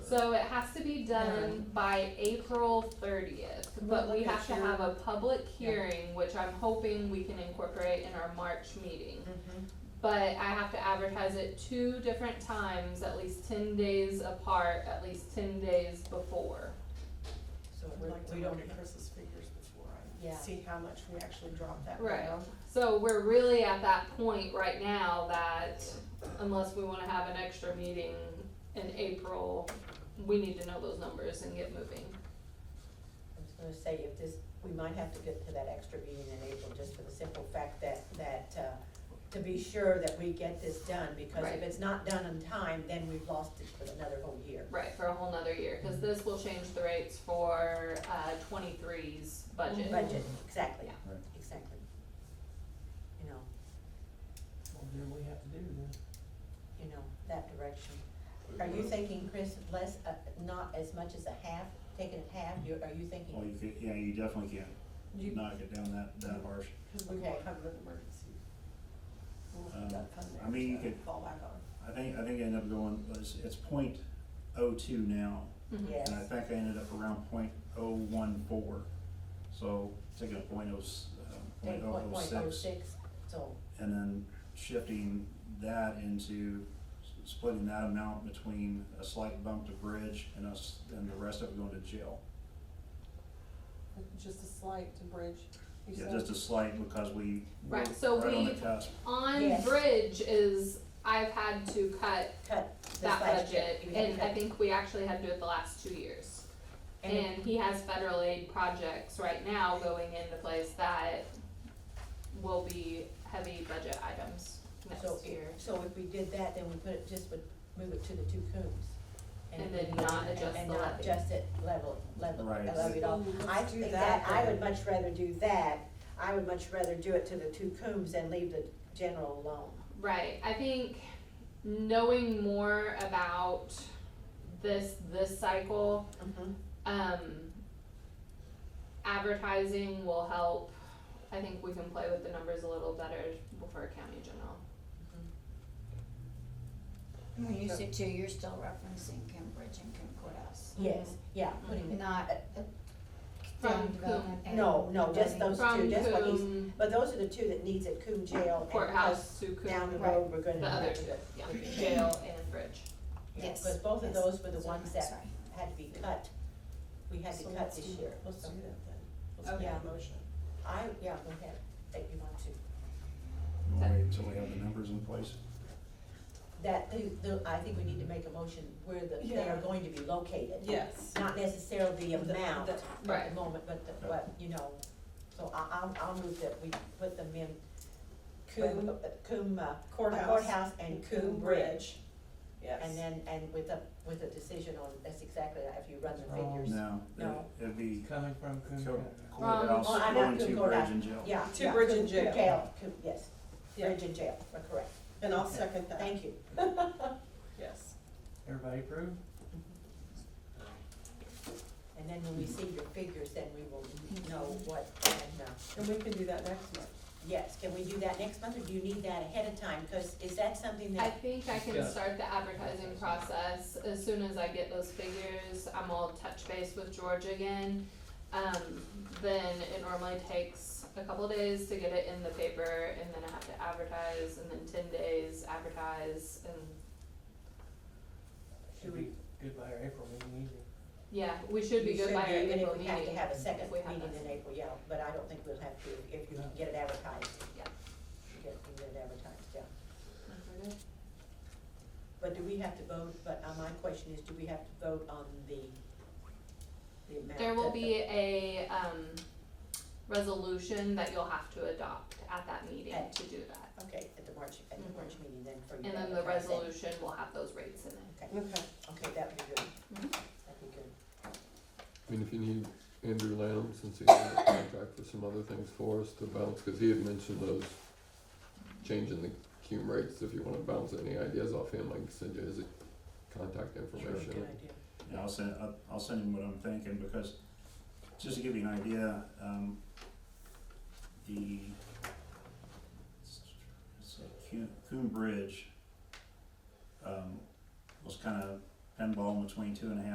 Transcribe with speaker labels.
Speaker 1: So it has to be done by April thirtieth, but we have to have a public hearing, which I'm hoping we can incorporate in our March meeting. But I have to advertise it two different times, at least ten days apart, at least ten days before.
Speaker 2: So
Speaker 3: I'd
Speaker 2: we're,
Speaker 3: like to
Speaker 2: we
Speaker 3: look
Speaker 2: don't get
Speaker 3: at-
Speaker 2: Chris's figures before I
Speaker 3: Yeah.
Speaker 2: see how much we actually dropped that
Speaker 1: Right.
Speaker 2: down.
Speaker 1: So we're really at that point right now that unless we wanna have an extra meeting in April, we need to know those numbers and get moving.
Speaker 3: I was gonna say, if this, we might have to get to that extra meeting in April, just for the simple fact that, that, uh, to be sure that we get this done, because
Speaker 1: Right.
Speaker 3: if it's not done in time, then we've lost it for another whole year.
Speaker 1: Right, for a whole nother year, cause this will change the rates for, uh, 23's budget.
Speaker 3: Budget, exactly,
Speaker 1: Yeah.
Speaker 4: Right.
Speaker 3: exactly. You know,
Speaker 5: Well, then we have to do then.
Speaker 3: you know, that direction. Are you thinking, Chris, less, uh, not as much as a half, taking it half, you, are you
Speaker 4: Well,
Speaker 3: thinking?
Speaker 4: Oh, you can, yeah, you definitely can't
Speaker 2: You,
Speaker 4: knock it down that, that harsh.
Speaker 2: cause we won't
Speaker 3: Okay.
Speaker 2: have an emergency. We'll have
Speaker 4: Um,
Speaker 2: that fund
Speaker 4: I mean, you
Speaker 2: there to
Speaker 4: could-
Speaker 2: Fall back on.
Speaker 4: I think, I think I ended up going, it's, it's point oh two now,
Speaker 1: Mhm.
Speaker 3: Yes,
Speaker 4: and I think I ended up around point oh one four. So taking a point oh, s- uh,
Speaker 3: eight
Speaker 4: point oh
Speaker 3: point
Speaker 4: oh
Speaker 3: point oh
Speaker 4: six,
Speaker 3: six, so,
Speaker 4: and then shifting that into, s- splitting that amount between a slight bump to bridge and us, and the rest of it going to jail.
Speaker 2: Just a slight to bridge, you
Speaker 4: Yeah,
Speaker 2: said?
Speaker 4: just a slight, because we, we're
Speaker 1: Right,
Speaker 4: right
Speaker 1: so
Speaker 4: on the
Speaker 1: we-
Speaker 4: cusp.
Speaker 1: On
Speaker 3: Yes.
Speaker 1: bridge is, I've had to cut
Speaker 3: cut this
Speaker 1: that
Speaker 3: last year,
Speaker 1: budget,
Speaker 3: you had to
Speaker 1: and
Speaker 3: cut
Speaker 1: I think we actually had to do it the last two years. And he has federal aid projects right now going into place that will be heavy budget items
Speaker 3: So,
Speaker 1: next
Speaker 3: if-
Speaker 1: year.
Speaker 3: so if we did that, then we put it, just would move it to the two coombs.
Speaker 1: And
Speaker 3: it
Speaker 1: then
Speaker 3: would-
Speaker 1: not adjust
Speaker 3: And
Speaker 1: the
Speaker 3: not
Speaker 1: levy.
Speaker 3: adjust it, level, level,
Speaker 4: Right.
Speaker 3: level it off.
Speaker 2: Ooh, let's
Speaker 3: I
Speaker 2: do
Speaker 3: think
Speaker 2: that
Speaker 3: that, I
Speaker 2: then.
Speaker 3: would much rather do that, I would much rather do it to the two coombs and leave the general alone.
Speaker 1: Right. I think knowing more about this this cycle,
Speaker 2: Mm-hmm.
Speaker 1: um, advertising will help. I think we can play with the numbers a little better for county general.
Speaker 6: When you say two, you're still referencing Cambridge and Concordas,
Speaker 3: Yes, yeah, putting,
Speaker 6: not uh,
Speaker 1: From
Speaker 6: down development and.
Speaker 3: no, no, just those two,
Speaker 1: From
Speaker 3: just what he's,
Speaker 1: Coombe
Speaker 3: but those are the two that needs at Coombe Jail. and
Speaker 1: courthouse to
Speaker 3: us Down the
Speaker 1: Coombe,
Speaker 6: Right.
Speaker 3: road, we're gonna.
Speaker 1: the other,
Speaker 3: do it.
Speaker 1: yeah, jail and bridge.
Speaker 6: Yes,
Speaker 3: Because both of
Speaker 6: yes.
Speaker 3: those were the
Speaker 6: Sorry,
Speaker 3: ones that
Speaker 6: sorry.
Speaker 3: had to be cut, we had to
Speaker 2: So
Speaker 3: cut
Speaker 2: let's
Speaker 3: this
Speaker 2: do-
Speaker 3: year.
Speaker 2: Let's do that then.
Speaker 3: Okay.
Speaker 2: Let's make a motion.
Speaker 3: I, yeah, go ahead, that you want to,
Speaker 4: You wanna Wait until we have the numbers in place.
Speaker 3: that, the, the, I think we need to make a motion where the, they are
Speaker 2: Yeah.
Speaker 3: going to be located.
Speaker 2: Yes.
Speaker 3: Not necessarily the
Speaker 2: The-
Speaker 3: amount
Speaker 2: the-
Speaker 3: at
Speaker 1: Right.
Speaker 3: the moment, but the, but, you know, so I, I'll, I'll move that we put them in Coombe, uh, Coombe uh,
Speaker 2: Courthouse.
Speaker 3: Courthouse and Coombe Bridge.
Speaker 2: Yes.
Speaker 3: And then, and with a, with a decision on, that's exactly, if you run the
Speaker 5: Wrong.
Speaker 3: figures.
Speaker 4: No,
Speaker 3: No.
Speaker 4: it- it'd be
Speaker 5: It's coming from
Speaker 4: co-
Speaker 5: Coon.
Speaker 4: courthouse,
Speaker 3: Oh, I know,
Speaker 4: going to
Speaker 3: Coon
Speaker 4: bridge
Speaker 3: courthouse.
Speaker 4: and jail.
Speaker 3: Yeah.
Speaker 2: To
Speaker 3: yeah,
Speaker 2: bridge and
Speaker 3: Coombe-
Speaker 2: jail.
Speaker 3: Jail, Coombe, yes,
Speaker 2: Yeah.
Speaker 3: bridge and jail, we're correct,
Speaker 2: And I'll second that.
Speaker 3: thank you.
Speaker 2: Yes.
Speaker 5: Everybody approve?
Speaker 3: And then when we see your figures, then we will know what, and, uh,
Speaker 2: And we can do that next month.
Speaker 3: yes, can we do that next month, or do you need that ahead of time, cause is that something
Speaker 1: I
Speaker 3: that,
Speaker 1: think I can
Speaker 5: Yeah.
Speaker 1: start the advertising process as soon as I get those figures. I'm all touch base with George again. Um, then it normally takes a couple days to get it in the paper and then I have to advertise and then ten days advertise and
Speaker 5: Should be good by our April meeting easy.
Speaker 1: yeah, we should be
Speaker 3: You
Speaker 1: good by our
Speaker 3: even
Speaker 1: April
Speaker 3: if we
Speaker 1: meeting.
Speaker 3: have to have a second
Speaker 1: if we have
Speaker 3: meeting
Speaker 1: that.
Speaker 3: in April, yeah, but I don't think we'll have to, if you can get it advertised.
Speaker 1: Yeah.
Speaker 3: You get, you get it advertised, yeah.
Speaker 1: Okay.
Speaker 3: But do we have to vote, but uh, my question is, do we have to vote on the, the amount?
Speaker 1: There will
Speaker 3: that the-
Speaker 1: be a, um, resolution that you'll have to adopt at that meeting
Speaker 3: Okay.
Speaker 1: to do that.
Speaker 3: Okay, at the March, at the
Speaker 1: Mhm.
Speaker 3: March meeting then for you.
Speaker 1: And
Speaker 3: to
Speaker 1: then the
Speaker 3: advertise it.
Speaker 1: resolution will have those rates in it.
Speaker 3: Okay,
Speaker 2: Okay.
Speaker 3: okay, that would be good,
Speaker 1: Mhm.
Speaker 3: that'd be good.
Speaker 7: I mean, if you need Andrew Lamb, since he's in the contract for some other things for us to bounce, because he had mentioned those changing the cume rates, if you wanna bounce any ideas off him, I can send you his contact information.
Speaker 3: Good idea.
Speaker 4: And I'll send, I'll, I'll send him what I'm thinking, because, just to give you an idea, um, the, it's a Coon, Coon Bridge, um, was kinda pinball in between two and a half